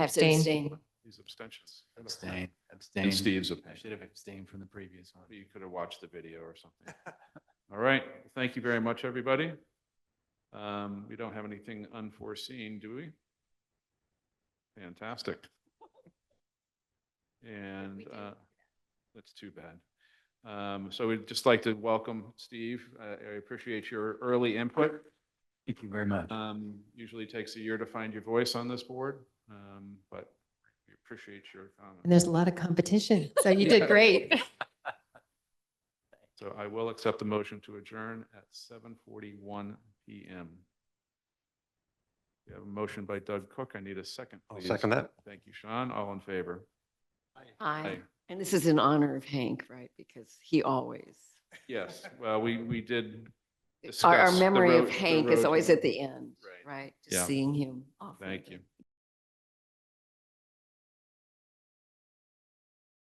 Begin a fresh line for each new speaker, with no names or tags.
have to
Abstain.
abstain.
These abstentions.
Abstain, abstain.
And Steve's
I
abstention.
should have abstained from the previous one.
You could have watched the video or something. All right, thank you very much, everybody. Um, we don't have anything unforeseen, do we? Fantastic. And, uh, that's too bad. Um, so we'd just like to welcome Steve. Uh, I appreciate your early input.
Thank you very much.
Uh,
Um, usually takes a year to find your voice on this board, um, but we appreciate your
And
comments.
there's a lot of competition, so you did great.
So I will accept the motion to adjourn at seven forty-one PM. We have a motion by Doug Cook. I need a second,
I'll
please.
second that.
Thank you, Sean. All in favor?
Aye.
Aye.
And this is in honor of Hank, right? Because he always,
Yes, well, we, we did
our, our
Discuss the
memory
road-
of
the
Hank
road
is always
to-
at the end,
Right.
right?
Yeah.
Just seeing him. off
Thank
of
you.
it.